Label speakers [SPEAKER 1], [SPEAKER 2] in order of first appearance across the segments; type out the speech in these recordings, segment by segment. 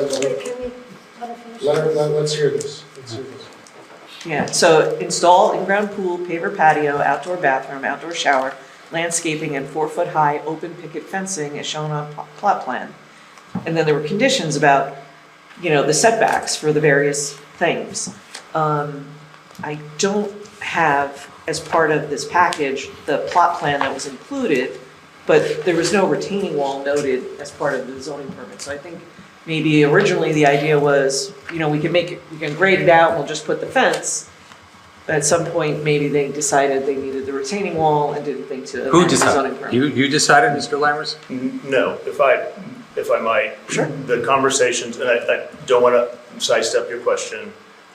[SPEAKER 1] Let-
[SPEAKER 2] Can we let her finish?
[SPEAKER 1] Let, let, let's hear this, let's hear this.
[SPEAKER 3] Yeah, so install in-ground pool, paver patio, outdoor bathroom, outdoor shower, landscaping, and four-foot-high open picket fencing as shown on pl- plot plan. And then there were conditions about, you know, the setbacks for the various things. Um, I don't have, as part of this package, the plot plan that was included, but there was no retaining wall noted as part of the zoning permit. So I think maybe originally the idea was, you know, we can make, it we can grade it out, we'll just put the fence. At some point, maybe they decided they needed the retaining wall and didn't think to
[SPEAKER 4] Who
[SPEAKER 3] amend the zoning
[SPEAKER 4] decided?
[SPEAKER 3] permit.
[SPEAKER 4] You, you decided, Mr. Lammers?
[SPEAKER 5] N- No, if I, if I might. Sure. The conversations, and I, I don't want to sidestep your question.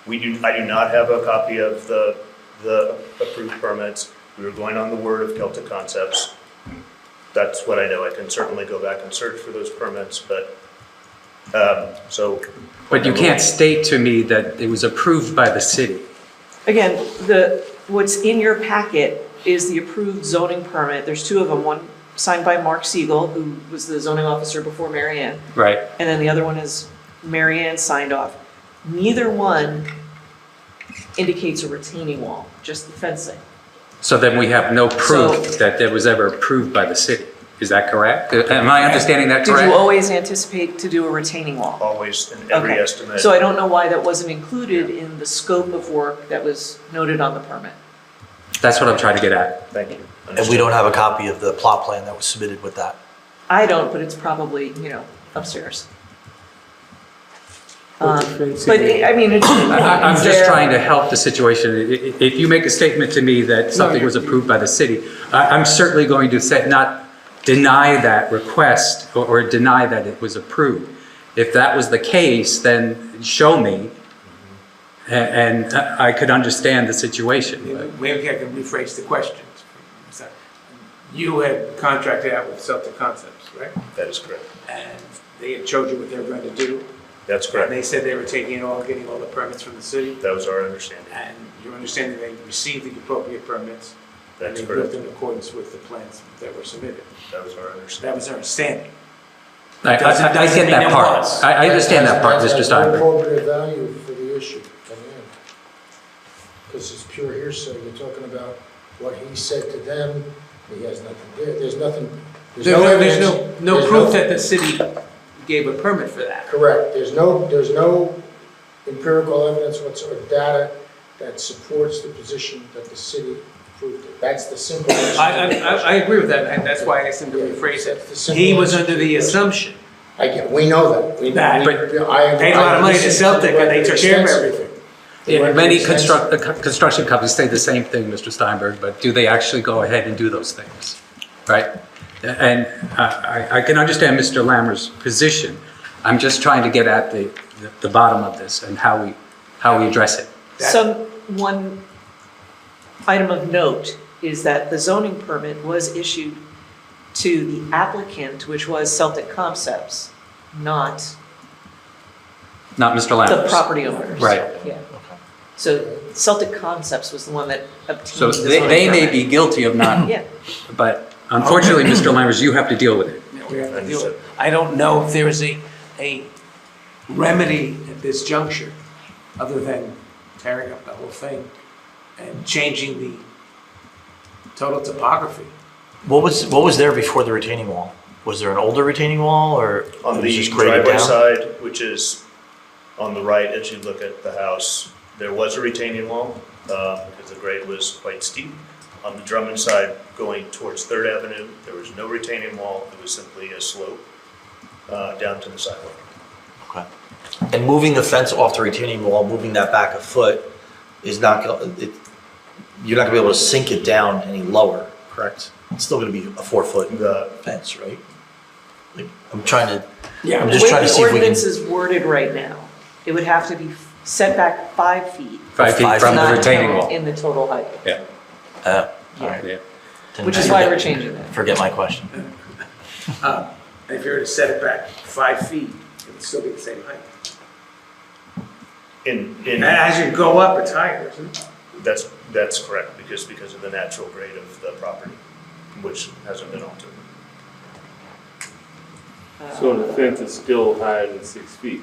[SPEAKER 5] We do, I do not have a copy of the, the approved permits. We were going on the word of Celtic Concepts. That's what I know. I can certainly go back and search for those permits, but, um, so.
[SPEAKER 4] But you can't state to me that it was approved by the city.
[SPEAKER 3] Again, the, what's in your packet is the approved zoning permit. There's two of them, one signed by Mark Siegel, who was the zoning officer before Mary Ann,
[SPEAKER 4] Right.
[SPEAKER 3] and then the other one is Mary Ann signed off. Neither one indicates a retaining wall, just the fencing.
[SPEAKER 4] So then we have no proof
[SPEAKER 3] So-
[SPEAKER 4] that it was ever approved by the city. Is that correct? Uh, Am I understanding that
[SPEAKER 3] Did you
[SPEAKER 4] correct?
[SPEAKER 3] always anticipate to do a retaining wall?
[SPEAKER 5] Always in every
[SPEAKER 3] Okay.
[SPEAKER 5] estimate.
[SPEAKER 3] So I don't know why that wasn't included in the scope of work that was noted on the permit.
[SPEAKER 4] That's what I'm trying to get at.
[SPEAKER 5] Thank you.
[SPEAKER 6] And we don't have a copy of the plot plan that was submitted with that.
[SPEAKER 3] I don't, but it's probably, you know, upstairs. Um,
[SPEAKER 7] With the fencing.
[SPEAKER 3] But, it- I mean, it's.
[SPEAKER 4] I- I- I'm
[SPEAKER 3] it's
[SPEAKER 4] just
[SPEAKER 3] there.
[SPEAKER 4] trying to help the situation. I- i- If you make a statement to me that something was approved by the city, I- I'm certainly going to say, not deny that request or- or deny that it was approved. If that was the case, then show me, a- and I I could understand the situation.
[SPEAKER 7] Maybe I can rephrase the questions. You had contracted out with Celtic Concepts, right?
[SPEAKER 5] That is correct.
[SPEAKER 7] And they had showed you what they were going to do.
[SPEAKER 5] That's
[SPEAKER 7] And
[SPEAKER 5] correct.
[SPEAKER 7] they said they were taking it all, getting all the permits from the city.
[SPEAKER 5] That was our understanding.
[SPEAKER 7] And you understand that they received the appropriate permits.
[SPEAKER 5] That's
[SPEAKER 7] And they built
[SPEAKER 5] correct.
[SPEAKER 7] in accordance with the plans that were submitted.
[SPEAKER 5] That was our understanding.
[SPEAKER 7] That was our understanding.
[SPEAKER 4] I I- I get that part. I I understand that part, Mr.
[SPEAKER 1] That's-
[SPEAKER 4] Steinberg.
[SPEAKER 1] That's no probative value for the issue at the end. Because it's pure hearsay, you're talking about what he said to them, he has nothing, there, there's nothing, there's no evidence. there's
[SPEAKER 7] the city gave a permit for that.
[SPEAKER 1] Correct, there's no, there's no empirical evidence whatsoever, data that supports the position that the city proved it. That's the simple. answer to the
[SPEAKER 7] I, I, I
[SPEAKER 1] question.
[SPEAKER 7] I agree with that, and that's why I asked him to rephrase
[SPEAKER 1] That's
[SPEAKER 7] it.
[SPEAKER 1] the
[SPEAKER 7] He was
[SPEAKER 1] simple answer to
[SPEAKER 7] under the
[SPEAKER 1] the question.
[SPEAKER 7] assumption
[SPEAKER 1] I get, we know that. We- we-
[SPEAKER 7] That,
[SPEAKER 4] but
[SPEAKER 1] I-
[SPEAKER 7] paid a lot of money
[SPEAKER 1] I
[SPEAKER 7] to
[SPEAKER 1] listened
[SPEAKER 7] Celtic, and they took care of
[SPEAKER 1] extensively.
[SPEAKER 7] everything.
[SPEAKER 1] They
[SPEAKER 4] Yeah,
[SPEAKER 1] went
[SPEAKER 4] Many
[SPEAKER 1] extensively.
[SPEAKER 4] construct, the co- construction companies say the same thing, Mr. Steinberg, but do they actually go ahead and do those things? Right? And I, I- I can understand Mr. Lammer's position. I'm just trying to get at the, the bottom of this and how we, how we address it.
[SPEAKER 3] Some, one item of note is that the zoning permit was issued to the applicant, which was Celtic Concepts, not
[SPEAKER 4] Not Mr.
[SPEAKER 3] the
[SPEAKER 4] Lammers.
[SPEAKER 3] property owners.
[SPEAKER 4] Right.
[SPEAKER 3] Yeah. So Celtic Concepts was the one that obtained
[SPEAKER 4] So
[SPEAKER 3] the
[SPEAKER 4] they,
[SPEAKER 3] zoning
[SPEAKER 4] they may
[SPEAKER 3] permit.
[SPEAKER 4] be guilty of not,
[SPEAKER 3] Yeah.
[SPEAKER 4] but unfortunately, Mr. Lammers, you have to deal with it.
[SPEAKER 7] that we have to deal with. I don't know if there is a, a remedy at this juncture, other than tearing up the whole thing and changing the total topography.
[SPEAKER 6] What was, what was there before the retaining wall? Was there an older retaining wall or?
[SPEAKER 5] On
[SPEAKER 6] it was
[SPEAKER 5] the
[SPEAKER 6] just graded
[SPEAKER 5] driveway
[SPEAKER 6] down?
[SPEAKER 5] side, which is on the right as you look at the house, there was a retaining wall, uh, because the grade was quite steep. On the Drummond side, going towards Third Avenue, there was no retaining wall, it was simply a slope uh, down to the sidewalk.
[SPEAKER 6] Okay. And moving the fence off the retaining wall, moving that back a foot is not, gonna- it, you're not gonna be able to sink it down any lower, correct? It's still gonna be a four foot
[SPEAKER 5] The,
[SPEAKER 6] fence, right? Like, I'm trying to,
[SPEAKER 7] Yeah,
[SPEAKER 6] I'm just trying to see if
[SPEAKER 3] The way
[SPEAKER 6] we
[SPEAKER 3] the
[SPEAKER 6] can.
[SPEAKER 3] ordinance is worded right now, it would have to be set back five feet.
[SPEAKER 4] Five feet
[SPEAKER 6] Five
[SPEAKER 4] from the
[SPEAKER 3] not
[SPEAKER 4] retaining
[SPEAKER 3] count
[SPEAKER 4] wall.
[SPEAKER 3] In the total height,
[SPEAKER 4] Yeah,
[SPEAKER 6] Uh, all
[SPEAKER 3] yeah.
[SPEAKER 6] right.
[SPEAKER 4] yeah.
[SPEAKER 6] Then
[SPEAKER 3] Which is
[SPEAKER 6] forget-
[SPEAKER 3] why we're changing that.
[SPEAKER 6] Forget my question.
[SPEAKER 7] If you were to set it back five feet, it would still be the same height.
[SPEAKER 5] in,
[SPEAKER 7] And
[SPEAKER 5] in,
[SPEAKER 7] as you go up, it's higher, isn't it?
[SPEAKER 5] that's, that's correct, because, because of the natural grade of the property, which hasn't been altered.
[SPEAKER 8] So the fence is still higher than six feet?